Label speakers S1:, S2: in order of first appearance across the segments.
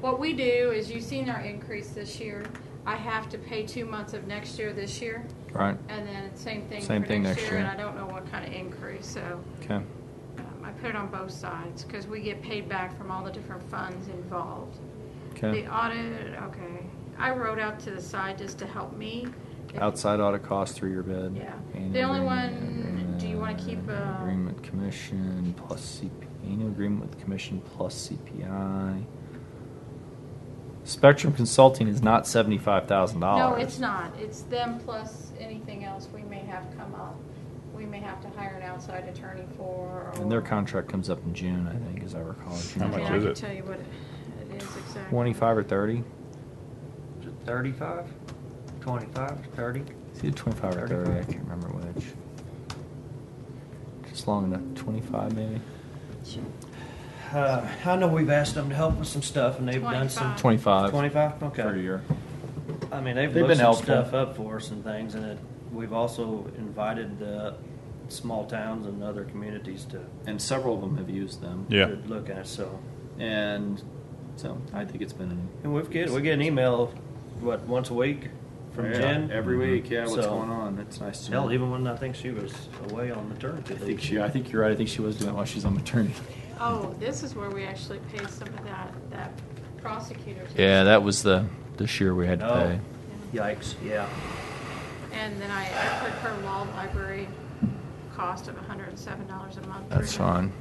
S1: What we do is, you've seen our increase this year. I have to pay two months of next year this year,
S2: Right,
S1: and then same thing for
S2: Same thing
S1: next
S2: next
S1: year, and
S2: year.
S1: I don't know what kind of increase, so
S2: okay,
S1: um, I put it on both sides, because we get paid back from all the different funds involved.
S2: okay.
S1: The audit, okay, I wrote out to the side just to help me. If-
S2: Outside audit cost through your bid.
S1: Yeah.
S2: Annual
S1: The only
S2: agreement,
S1: one- do you wanna keep,
S2: agreement,
S1: uh,
S2: Agreement commission plus CP, annual agreement with commission plus CPI. Spectrum Consulting is not seventy-five thousand
S1: No,
S2: dollars.
S1: it's not. It's them plus anything else we may have come up. We may have to hire an outside attorney for.
S2: And their
S1: or-
S2: contract comes up in June, I think, as I recall.
S1: I
S3: How
S1: mean,
S3: much
S1: I
S3: is
S1: can
S3: it?
S1: tell you what it is exactly.
S2: Twenty-five or thirty?
S4: Is it 35? 25? 30?
S2: It's either twenty-five or thirty, I
S4: 35.
S2: can't remember which. Just long enough, twenty-five maybe?
S5: Uh, I know we've asked them to help with some stuff, and they've done some.
S1: 25.
S2: Twenty-five.
S5: Twenty-five. Okay.
S2: Per year.
S5: I mean, they've,
S2: They've
S5: looked
S2: been
S5: some
S2: helpful.
S5: stuff up for us and things, and it, we've also invited the small towns and other communities to,
S2: And several of them have used them.
S3: Yeah.
S5: to look at. So,
S2: And so I think it's been.
S5: and we've get we get an email, what once a week from
S2: Yeah,
S5: Jen.
S2: every week. Yeah, what's
S5: So-
S2: going on? It's nice to
S5: Hell,
S2: know.
S5: even when I think she was away on maternity
S2: I
S5: leave.
S2: think she. I think you're right. I think she was doing it while she's on maternity.
S1: Oh, this is where we actually pay some of that, that prosecutor.
S2: Yeah, that was the this year we had to
S5: Oh.
S2: pay.
S5: Yikes! Yeah.
S1: And then I, I put her law library cost of hundred and seven dollars a month.
S2: That's fine.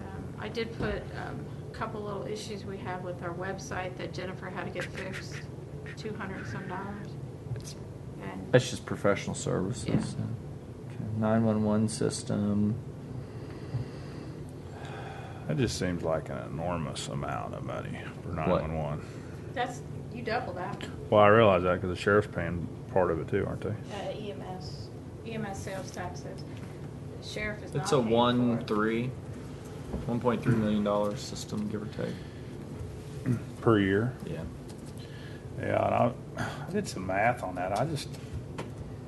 S1: Um, I did put um, a couple little issues we have with our website that Jennifer had to get fixed, two hundred some dollars. And
S2: That's just professional
S1: Yeah.
S2: services. Nine one one system.
S3: That just seems like an enormous amount of money for
S2: What?
S3: 911.
S1: that's, you double that,
S3: Well, I realize that because the sheriff's paying part of it too, aren't they?
S1: uh, EMS, EMS E sales taxes. The Sheriff is not
S2: It's a
S1: paying for
S2: one
S1: it.
S2: three, one point three million dollar system, give or take.
S3: Per year.
S2: Yeah.
S3: Yeah, and I, I did some math on that. I just,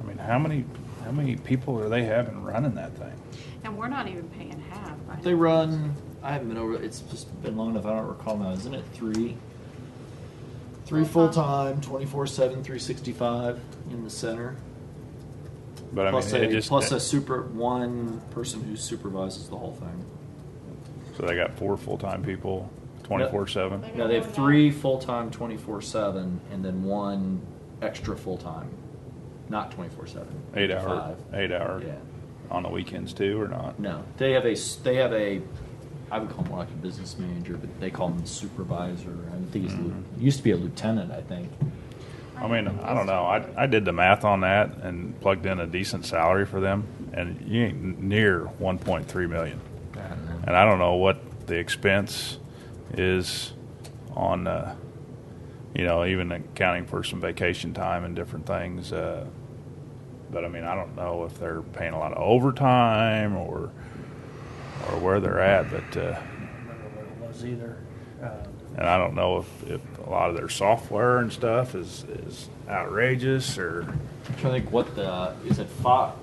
S3: I mean, how many, how many people are they having running that thing?
S1: And we're not even paying half. I
S2: They
S1: don't-
S2: run. I haven't been over. It's just been long enough. I don't recall now. Isn't it three? Three full time, 24 7, 365 in the center.
S3: But I
S2: plus
S3: mean, it
S2: a,
S3: just
S2: plus a super one person who supervises the whole thing.
S3: so they got four full time people, twenty four seven.
S1: They
S2: No,
S1: got
S2: they
S1: one
S2: have three full time, 24 7, and then one extra full time. Not 24 7.
S3: Eight hour, eight hour
S2: Yeah.
S3: on the weekends too, or not?
S2: No, they have a s- they have a. I would call him more like a business manager, but they call him supervisor. I think he's lieu- he used to be a lieutenant. I think.
S3: Mm-hmm. I mean, I don't know. I, I did the math on that and plugged in a decent salary for them, and you ain't near 1.3 million. And I don't know what the expense is on, uh, you know, even accounting for some vacation time and different things. Uh, but I mean, I don't know if they're paying a lot of overtime or or where they're at. But uh,
S5: I don't remember what it was either. Um,
S3: and I don't know if, if a lot of their software and stuff is is outrageous or.
S2: I'm trying to think what the is it five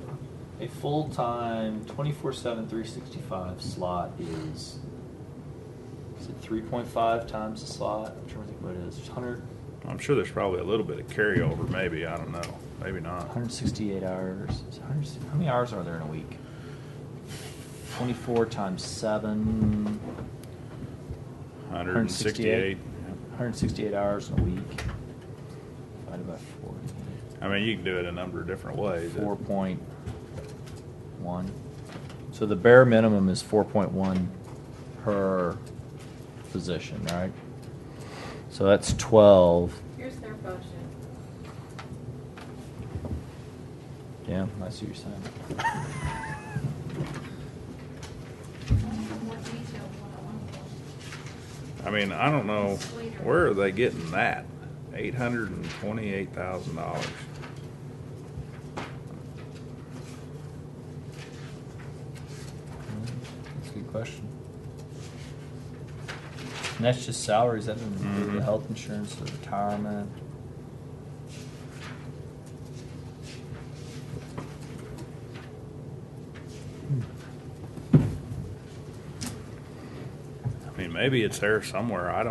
S2: a full time 24 7 365 slot is is it 3.5 times the slot I'm trying to think what it is It's 100
S3: I'm sure there's probably a little bit of carryover, maybe. I don't know. Maybe not.
S2: 168 hours Is it 160 how many hours are there in a week 24 times 7
S3: 168.
S2: 168 hours in a week divided by 40
S3: I mean, you can do it a number of different ways.
S2: Four point one. So the bare minimum is four point one per position, right? So that's twelve.
S1: Here's their budget.
S2: Yeah, I see what you're saying.
S1: I have more detail than what I wanted.
S3: I mean, I don't know. Where are they getting that? $828,000.
S2: That's a good question. And that's just salaries, that doesn't include the
S3: Mhm.
S2: health insurance, the retirement.
S3: I mean, maybe it's there somewhere. I don't.